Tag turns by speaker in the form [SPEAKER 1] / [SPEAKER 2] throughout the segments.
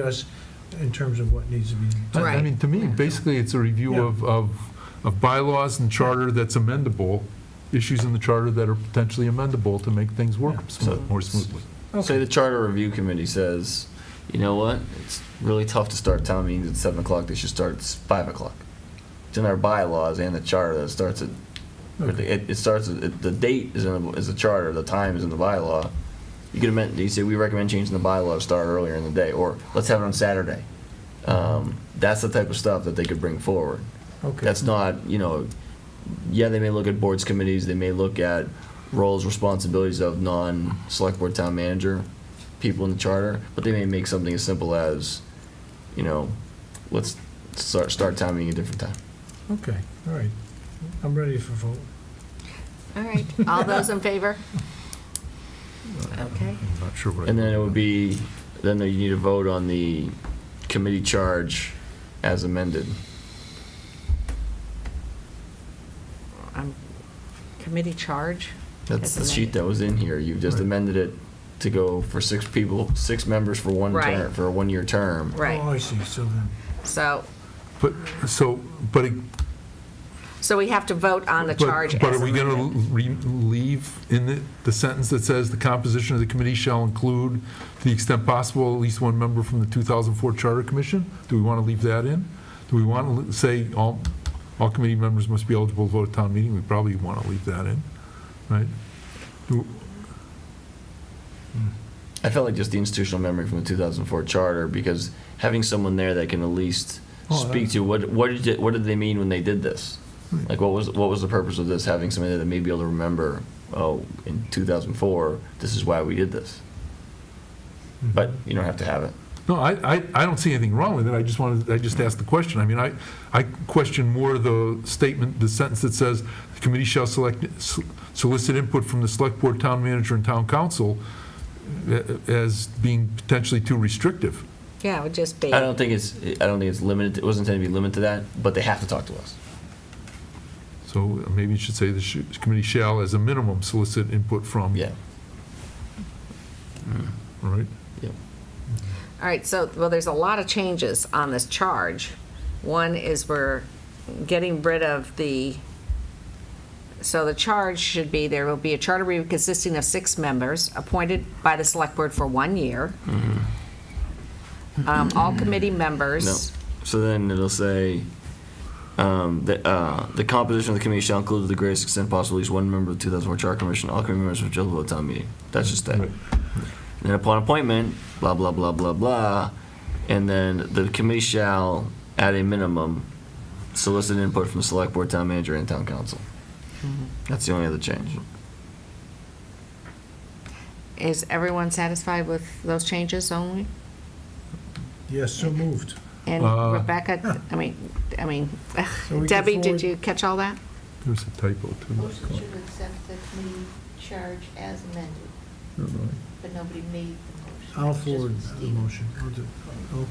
[SPEAKER 1] us in terms of what needs to be
[SPEAKER 2] I-
[SPEAKER 1] done.
[SPEAKER 2] I mean, to me,
[SPEAKER 3] Right.
[SPEAKER 2] basically, it's a review
[SPEAKER 1] Yeah.
[SPEAKER 2] of, of, of bylaws and charter that's amendable, issues in the charter that are potentially amendable to make things work
[SPEAKER 1] Yeah.
[SPEAKER 2] smo- more smoothly.
[SPEAKER 4] Say the charter review committee says, you know what, it's really tough to start town meetings at seven o'clock, they should start at s- five o'clock. It's in our bylaws and the charter that starts at, or the- it, it starts, at- it- the date is in, the- is the charter, the time is in the bylaw. You could amend, you say, we recommend changing the bylaw to start earlier in the day, or let's have it on Saturday. Um, That's the type of stuff that they could bring forward.
[SPEAKER 1] Okay.
[SPEAKER 4] That's not, you know, yeah, they may look at boards, committees, they may look at roles, responsibilities of non-select board town manager, people in the charter, but they may make something as simple as, you know, let's start, start town meeting at a different time.
[SPEAKER 1] Okay, all right. I'm ready for vote.
[SPEAKER 3] All right, all those in favor? Okay.
[SPEAKER 2] I'm not sure what I.
[SPEAKER 4] And then it would be, then you need to vote on the committee charge as amended.
[SPEAKER 3] Um, Committee charge?
[SPEAKER 4] That's the
[SPEAKER 3] As
[SPEAKER 4] sheet that was in here, you just
[SPEAKER 1] Right.
[SPEAKER 4] amended it to go for six people, six members for one
[SPEAKER 3] Right.
[SPEAKER 4] term, for a one-year term.
[SPEAKER 1] Oh,
[SPEAKER 3] Right,
[SPEAKER 1] I see, so then,
[SPEAKER 3] so,
[SPEAKER 2] But, so, but. it-
[SPEAKER 3] so we have to vote on the
[SPEAKER 2] but-
[SPEAKER 3] charge
[SPEAKER 2] But
[SPEAKER 3] as
[SPEAKER 2] are we going
[SPEAKER 3] amended.
[SPEAKER 2] to leave in the, the sentence that says, "The composition of the committee shall include, to the extent possible, at least one member from the 2004 Charter Commission"? Do we want to leave that in? Do we want to say, all, all committee members must be eligible to vote at town meeting? We probably want to leave that in, right? Do-
[SPEAKER 4] I felt like just the institutional memory from the 2004 charter because having someone there that can at least
[SPEAKER 2] Oh,
[SPEAKER 4] speak to what what did it, what did they mean when they did this?
[SPEAKER 2] Right.
[SPEAKER 4] Like what was what was the purpose of this? Having somebody that may be able to remember, oh, in 2004, this is why we did this.
[SPEAKER 1] hmm.
[SPEAKER 4] But you don't have to have it.
[SPEAKER 2] No, I, I, I don't see anything wrong with it, I just wanted, I just asked the question. I mean, I, I question more the statement, the sentence that says, "The committee shall select, solicit input from the select board, town manager, and town council," uh, as being potentially too restrictive.
[SPEAKER 3] Yeah, it would just be,
[SPEAKER 4] I don't think it's I don't think it's limited. It wasn't intended to be limited to that, but they have to talk to us.
[SPEAKER 2] So uh, maybe you should say the sh- committee shall, as a minimum, solicit input from.
[SPEAKER 4] Yeah.
[SPEAKER 2] All Right?
[SPEAKER 3] all right, so, well, there's a lot of changes on this charge. One is we're getting rid of the, so the charge should be, there will be a charter review consisting of six members appointed by the select board for one year. Um, All committee
[SPEAKER 4] Mm-hmm. No.
[SPEAKER 3] members.
[SPEAKER 4] So then it'll say, um, the, uh, the composition of the committee shall include to the greatest extent possible at least one member of the 2004 Charter Commission, all committee members of Jill vote town meeting. That's just that.
[SPEAKER 2] Right.
[SPEAKER 4] And then upon appointment, blah, blah, blah, blah, blah. And then the committee shall, at a minimum, solicit input from the select board, town manager, and town council. That's the only other change.
[SPEAKER 3] Is everyone satisfied with those changes only?
[SPEAKER 1] yes, so moved.
[SPEAKER 3] And
[SPEAKER 2] Uh,
[SPEAKER 3] Rebecca, I mean, I mean,
[SPEAKER 1] So we can
[SPEAKER 3] Debbie, did
[SPEAKER 1] forward-
[SPEAKER 3] you catch all that?
[SPEAKER 2] There's a typo too.
[SPEAKER 5] Motion to accept the committee charge as amended, but nobody made the motion.
[SPEAKER 1] I'll
[SPEAKER 5] It's just
[SPEAKER 1] forward the
[SPEAKER 5] Stephen.
[SPEAKER 1] motion. I'll do- oh,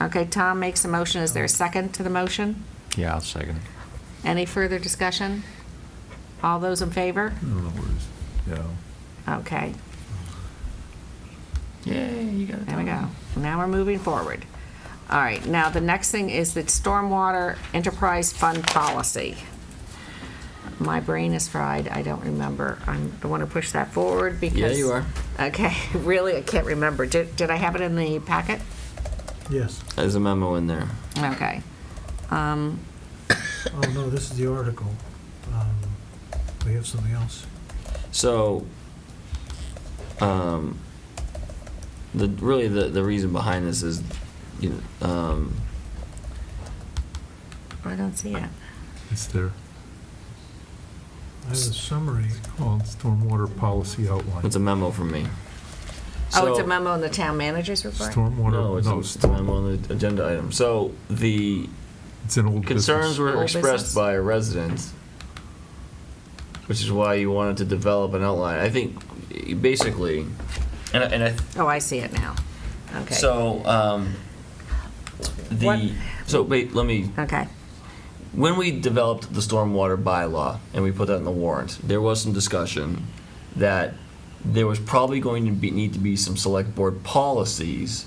[SPEAKER 1] I'll-
[SPEAKER 3] Okay, Tom makes a motion. Is there a second to the motion?
[SPEAKER 6] Yeah, I'll second.
[SPEAKER 3] Any further discussion? All those in favor?
[SPEAKER 1] Hmm.
[SPEAKER 2] I don't know where it is. Yeah.
[SPEAKER 3] Okay,
[SPEAKER 4] Yay, you got it.
[SPEAKER 3] there we go. Now we're moving forward. All right, now the next thing is the Stormwater Enterprise Fund Policy. My brain is fried. I don't remember. I'm, I want to push that forward because.
[SPEAKER 4] Yeah, you are.
[SPEAKER 3] Okay, really, I can't remember. Did, did I have it in the packet?
[SPEAKER 1] Yes.
[SPEAKER 4] There's a memo in there.
[SPEAKER 3] Okay. Um,
[SPEAKER 1] Oh, no, this is the article. Um, We have something else.
[SPEAKER 4] So, um, the, really, the, the reason behind this is, you know, um,
[SPEAKER 3] I don't see it.
[SPEAKER 2] It's there,
[SPEAKER 1] I have a summary.
[SPEAKER 2] called Stormwater Policy Outline.
[SPEAKER 4] it's a memo from me.
[SPEAKER 3] Oh, it's a
[SPEAKER 4] So-
[SPEAKER 3] memo in the town manager's report?
[SPEAKER 4] No,
[SPEAKER 2] Stormwater,
[SPEAKER 4] it's a-
[SPEAKER 2] no,
[SPEAKER 4] it's a memo
[SPEAKER 2] storm-
[SPEAKER 4] on the agenda item. So, the
[SPEAKER 2] it's an old business.
[SPEAKER 4] concerns were
[SPEAKER 3] Old business.
[SPEAKER 4] expressed by a resident, which is why you wanted to develop an outline. I think, eh, basically, and, I- and I,
[SPEAKER 3] Oh, I see it now. Okay.
[SPEAKER 4] so, um,
[SPEAKER 3] What-
[SPEAKER 4] the, so, wait, let me
[SPEAKER 3] Okay,
[SPEAKER 4] when we developed the stormwater bylaw and we put that in the warrant, there was some discussion that there was probably going to be, need to be some select board policies